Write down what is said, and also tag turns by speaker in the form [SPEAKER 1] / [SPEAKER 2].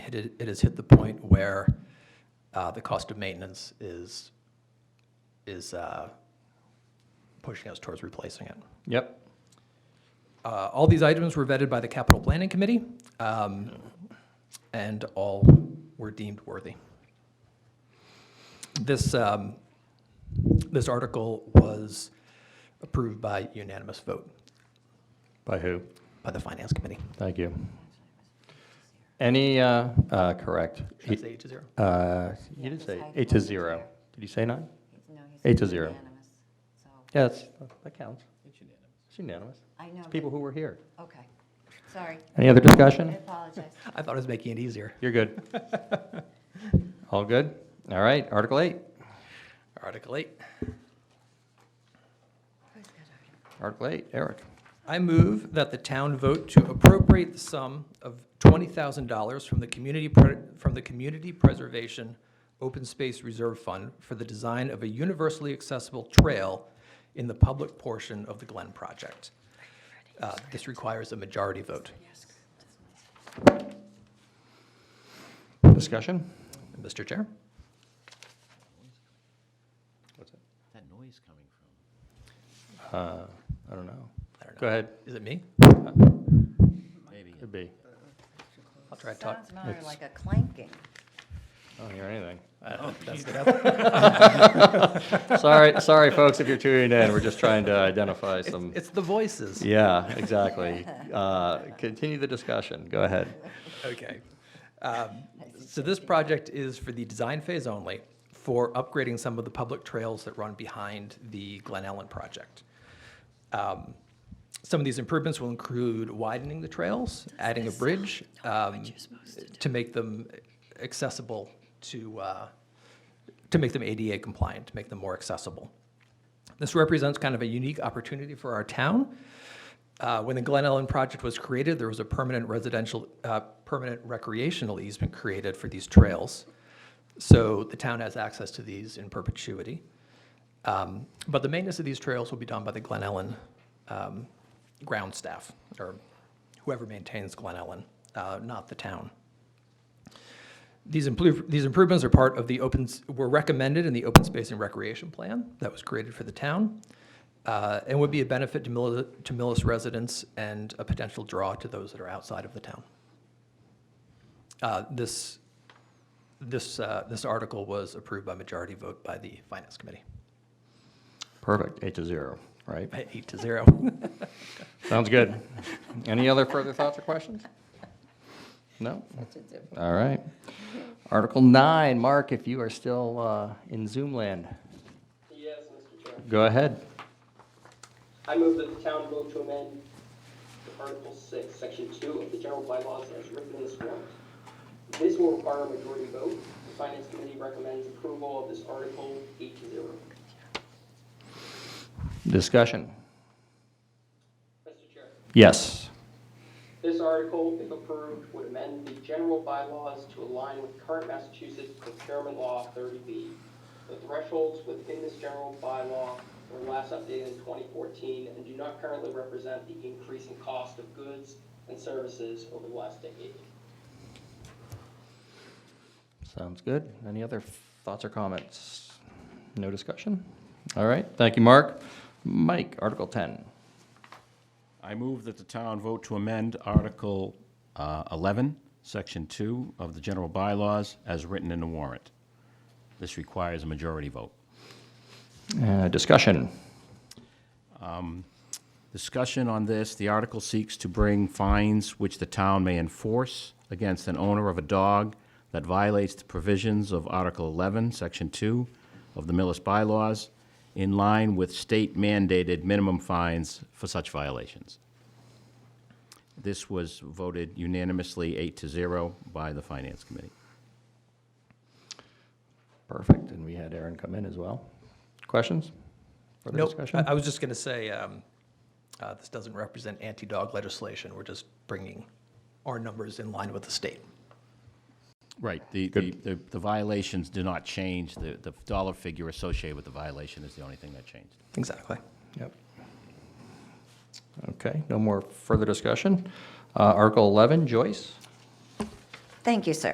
[SPEAKER 1] It is- it has hit the point where uh, the cost of maintenance is, is uh, pushing us towards replacing it.
[SPEAKER 2] Yep.
[SPEAKER 1] Uh, All these items were vetted by the Capital Planning Committee, um, and all were deemed worthy. This, um, this article was approved by unanimous vote
[SPEAKER 2] By who?
[SPEAKER 1] by the Finance Committee.
[SPEAKER 2] Thank you. Any, uh, uh, correct.
[SPEAKER 1] Should I say eight to zero?
[SPEAKER 2] Uh, You did say eight to zero. Did you say nine? Eight to zero. Yes, that counts. It's unanimous.
[SPEAKER 3] I know,
[SPEAKER 2] It's
[SPEAKER 3] but-
[SPEAKER 2] people who were here.
[SPEAKER 3] okay, sorry,
[SPEAKER 2] Any other
[SPEAKER 3] I
[SPEAKER 2] discussion?
[SPEAKER 3] apologize.
[SPEAKER 1] I thought it was making it easier.
[SPEAKER 2] You're good. All good? All right, Article 8.
[SPEAKER 1] Article eight.
[SPEAKER 3] Who's got our-
[SPEAKER 2] Article 8, Eric.
[SPEAKER 1] I move that the town vote to appropriate the sum of $20,000 from the Community, Pre- from the Community Preservation Open Space Reserve Fund for the design of a universally accessible trail in the public portion of the Glen project. Uh, This requires a majority vote.
[SPEAKER 2] Discussion?
[SPEAKER 1] Mr. Chair?
[SPEAKER 4] that noise coming from?
[SPEAKER 2] Uh, I don't know.
[SPEAKER 1] I don't know.
[SPEAKER 2] Go ahead.
[SPEAKER 1] Is it me?
[SPEAKER 4] Maybe.
[SPEAKER 2] Could be.
[SPEAKER 1] I'll try to talk.
[SPEAKER 3] Sounds more like a clanking.
[SPEAKER 2] I don't hear anything.
[SPEAKER 1] Uh, That's what happened.
[SPEAKER 2] Sorry, sorry, folks, if you're tuning in. We're just trying to identify some.
[SPEAKER 1] It's the voices.
[SPEAKER 2] Yeah, exactly. Uh, Continue the discussion. Go ahead.
[SPEAKER 1] Okay. Um, So this project is for the design phase only for upgrading some of the public trails that run behind the Glen Ellen project. Um, Some of these improvements will include widening the trails, adding a bridge um, to make them accessible to, uh, to make them ADA compliant, to make them more accessible. This represents kind of a unique opportunity for our town. Uh, When the Glen Ellen project was created, there was a permanent residential, uh, permanent recreational easement created for these trails. So the town has access to these in perpetuity. Um, But the maintenance of these trails will be done by the Glen Ellen um, ground staff, or whoever maintains Glen Ellen, uh, not the town. These improve, these improvements are part of the open, s- were recommended in the Open Space and Recreation Plan that was created for the town, uh, and would be a benefit to Millis, to Millis residents and a potential draw to those that are outside of the town. Uh, This, this, uh, this article was approved by majority vote by the Finance Committee,
[SPEAKER 2] Perfect, eight to zero, right?
[SPEAKER 1] by eight to zero.
[SPEAKER 2] Sounds good. Any other further thoughts or questions? No? All right. Article nine, Mark, if you are still uh, in Zoom land,
[SPEAKER 5] Yes, Mr. Chair.
[SPEAKER 2] go ahead.
[SPEAKER 5] I move that the town vote to amend Article 6, Section 2 of the general bylaws as written in this warrant. This will require a majority vote. The Finance Committee recommends approval of this article 8 to 0.
[SPEAKER 2] Discussion.
[SPEAKER 5] Mr. Chair,
[SPEAKER 2] Yes.
[SPEAKER 5] this article, if approved, would amend the general bylaws to align with current Massachusetts procurement law 30B. The thresholds within this general bylaw were last updated in 2014 and do not currently represent the increase in cost of goods and services over the last decade.
[SPEAKER 2] Sounds good. Any other thoughts or comments? No discussion? All right, thank you, Mark. Mike, Article 10.
[SPEAKER 6] I move that the town vote to amend Article uh, 11, Section 2 of the general bylaws as written in the warrant. This requires a majority vote.
[SPEAKER 2] Uh, Discussion.
[SPEAKER 6] Discussion on this, the article seeks to bring fines which the town may enforce against an owner of a dog that violates the provisions of Article 11, Section 2 of the Millis bylaws in line with state mandated minimum fines for such violations. This was voted unanimously eight to zero by the Finance Committee.
[SPEAKER 2] Perfect, and we had Aaron come in as well. Questions? Further
[SPEAKER 1] Nope,
[SPEAKER 2] discussion?
[SPEAKER 1] I I was just going to say, um, uh, this doesn't represent anti-dog legislation. We're just bringing our numbers in line with the state.
[SPEAKER 6] Right, the, the, the the violations do not change, the, the dollar figure associated with the violation is the only thing that changed.
[SPEAKER 1] Exactly.
[SPEAKER 2] Yep. Okay, no more further discussion. Uh, Article 11, Joyce?
[SPEAKER 3] Thank you, sir.